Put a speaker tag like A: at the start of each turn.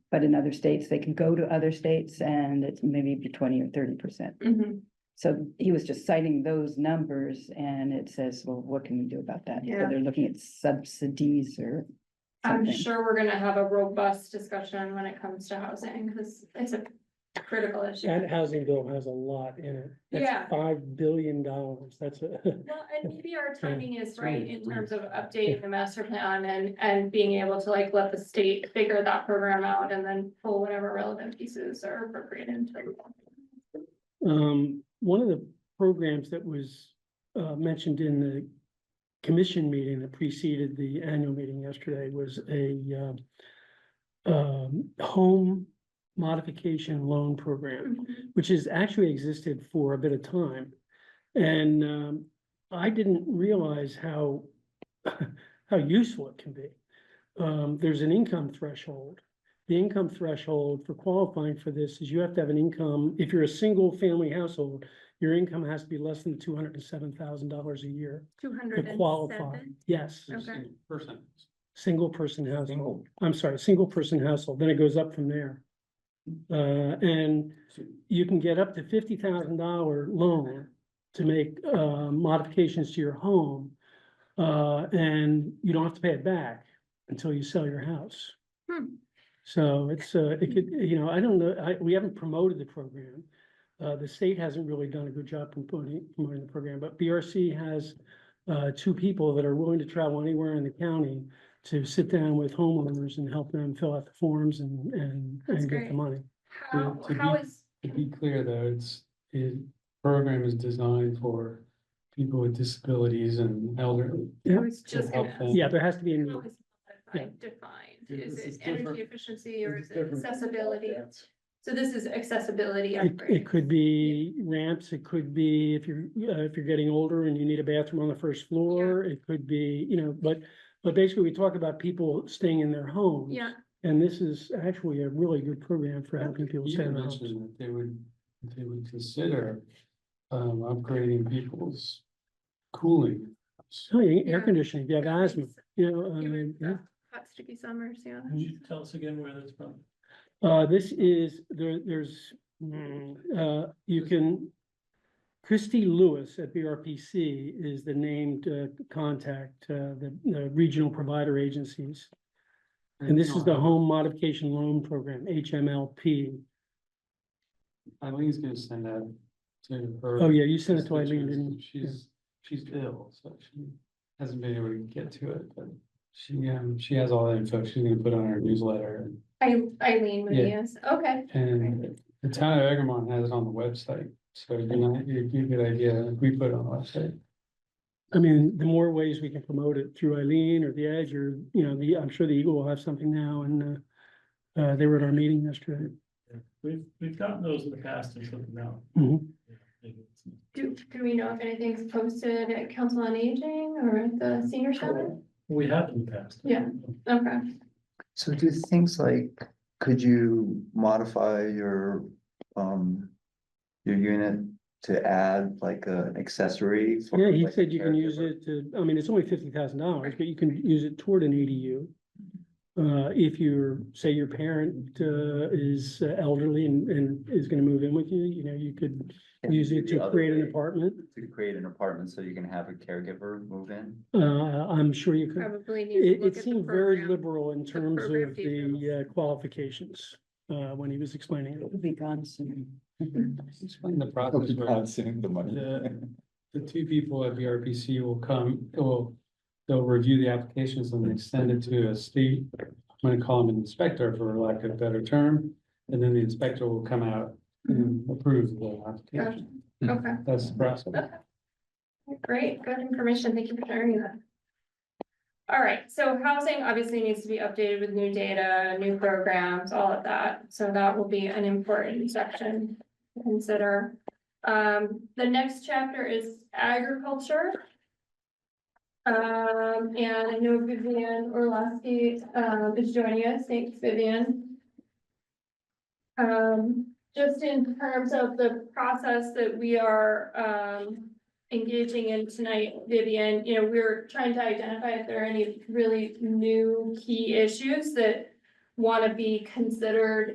A: But in other states, they can go to other states and it's maybe be twenty or thirty percent.
B: Mhm.
A: So he was just citing those numbers and it says, well, what can we do about that? So
B: Yeah.
A: they're looking at subsidies or
B: I'm
A: something.
B: sure we're gonna have a robust discussion when it comes to housing, because it's a critical issue.
C: That housing bill has a lot in it. That's
B: Yeah.
C: Five billion dollars, that's a.
B: Well, and maybe our timing is
C: Yeah,
B: right
C: yeah,
B: in terms
C: yeah.
B: of updating the master plan and, and being able to like let the state figure that program out and then pull whatever relevant pieces are appropriate into. it.
C: Um, one of the programs that was uh mentioned in the commission meeting that preceded the annual meeting yesterday was a um um, home modification loan program,
B: Mm-hmm.
C: which has actually existed for a bit of time. And um, I didn't realize how how useful it can be. Um, there's an income threshold the income threshold for qualifying for this is you have to have an income, if you're a single family household, your income has to be less than two hundred and seven thousand dollars a year
B: Two
C: to
B: hundred and
C: qualify.
B: seven.
C: Yes,
B: Okay.
D: Person.
C: single person household. I'm sorry, single person household, then it goes up from there. Uh, and you can get up to fifty thousand dollar loan to make, uh, modifications to your home. Uh, and you don't have to pay it back until you sell your house.
B: Hmm.
C: So it's, uh, it could,
B: Mm-hmm.
C: you know, I don't know, I, we haven't promoted the program. Uh, the state hasn't really done a good job promoting, promoting the program, but BRC has, uh, two people that are willing to travel anywhere in the county to sit down with homeowners and help them fill out the forms and, and,
B: That's
C: and get
B: great.
C: the money.
B: How,
D: to
B: how
D: be-
B: is,
D: To be clear, though, it's, the program is designed for people with disabilities and elderly.
B: I was
D: to
B: just
D: help
B: gonna ask.
D: them.
C: Yeah, there has to be a need.
B: How is that like defined?
D: Yeah,
B: Is
D: this
B: it
D: is different.
B: energy efficiency or
D: It's
B: is it
D: different.
B: accessibility? So this is accessibility.
C: It,
B: upgrades.
C: it could be ramps, it could be if you're, uh, if you're getting older and you need a bathroom on the first floor, it could be, you know, but, but basically we talk about people staying in their homes.
B: Yeah,
C: And this is actually a really good program for helping people
D: You
C: stay in
D: had
C: their homes.
D: mentioned that they would, they would consider, um, upgrading people's cooling.
C: So you- Oh,
B: Yeah.
C: air conditioning, if you have
B: That makes
C: asthma,
B: sense.
C: you know, I mean,
B: given
C: yeah.
B: the hot sticky summers, yeah.
C: Mhm.
D: tell us again where that's from?
C: Uh, this is, there, there's, mm, uh, you can, Christy Lewis at BRPC is the named, uh, contact, uh, the, the regional provider agencies. And this is the Home Modification Loan Program, HMLP.
D: Eileen's gonna send that to her.
C: Oh, yeah, you sent it to Eileen,
D: constituents,
C: didn't
D: and
C: you?
D: She's, she's ill, so she hasn't been able to get to it, but she, um, she has all that info, she's gonna put on her newsletter. and-
B: I, Eileen would
D: Yeah.
B: yes, okay.
D: And the town of Egremont has it on the website, so you know, you, you good idea, if we put it on the website.
C: I mean, the more ways we can promote it through Eileen or the Edge or, you know, the, I'm sure the Eagle will have something now and, uh, uh, they were at our meeting yesterday.
E: We've, we've gotten those in the past and took them out.
C: Mhm.
B: Do, do we know if anything's posted at Council on Aging or at the senior center?
E: We have in the past.
B: Yeah. Okay,
F: So do things like, could you modify your, um, your unit to add like an accessory? for,
C: Yeah, he
F: like,
C: said you can use
F: caregiver?
C: it to, I mean, it's only fifty thousand dollars, but you can use it toward an EDU. Uh, if you're, say your parent, uh, is uh, elderly and, and is gonna move in with you, you know, you could
F: Can
C: use
F: you
C: it
F: do the
C: to
F: other
C: create an
F: way,
C: apartment.
F: To create an apartment so you can have a caregiver move in?
C: Uh, I'm sure you could.
B: probably need to look
C: It, it
B: at the
C: seemed very
B: program.
C: liberal in terms
B: program
C: of the
B: details.
C: uh, qualifications, uh, when he was explaining it.
A: It'll be gone soon. Mm-hmm.
D: Explain the process. where The, the two people at BRPC will come, will, they'll review the applications and then send it to a state. I'm gonna call him an inspector for lack of a better term, and then the inspector will come out and approve the application.
B: Okay,
D: That's the process.
B: great, good information, thank you for sharing that. All right, so housing obviously needs to be updated with new data, new programs, all of that, so that will be an important section to consider. Um, the next chapter is agriculture. Um, and I know Vivian Orlowski, um, is joining us. Thanks, Vivian. Um, just in terms of the process that we are, um, engaging in tonight, Vivian, you know, we're trying to identify if there are any really new key issues that wanna be considered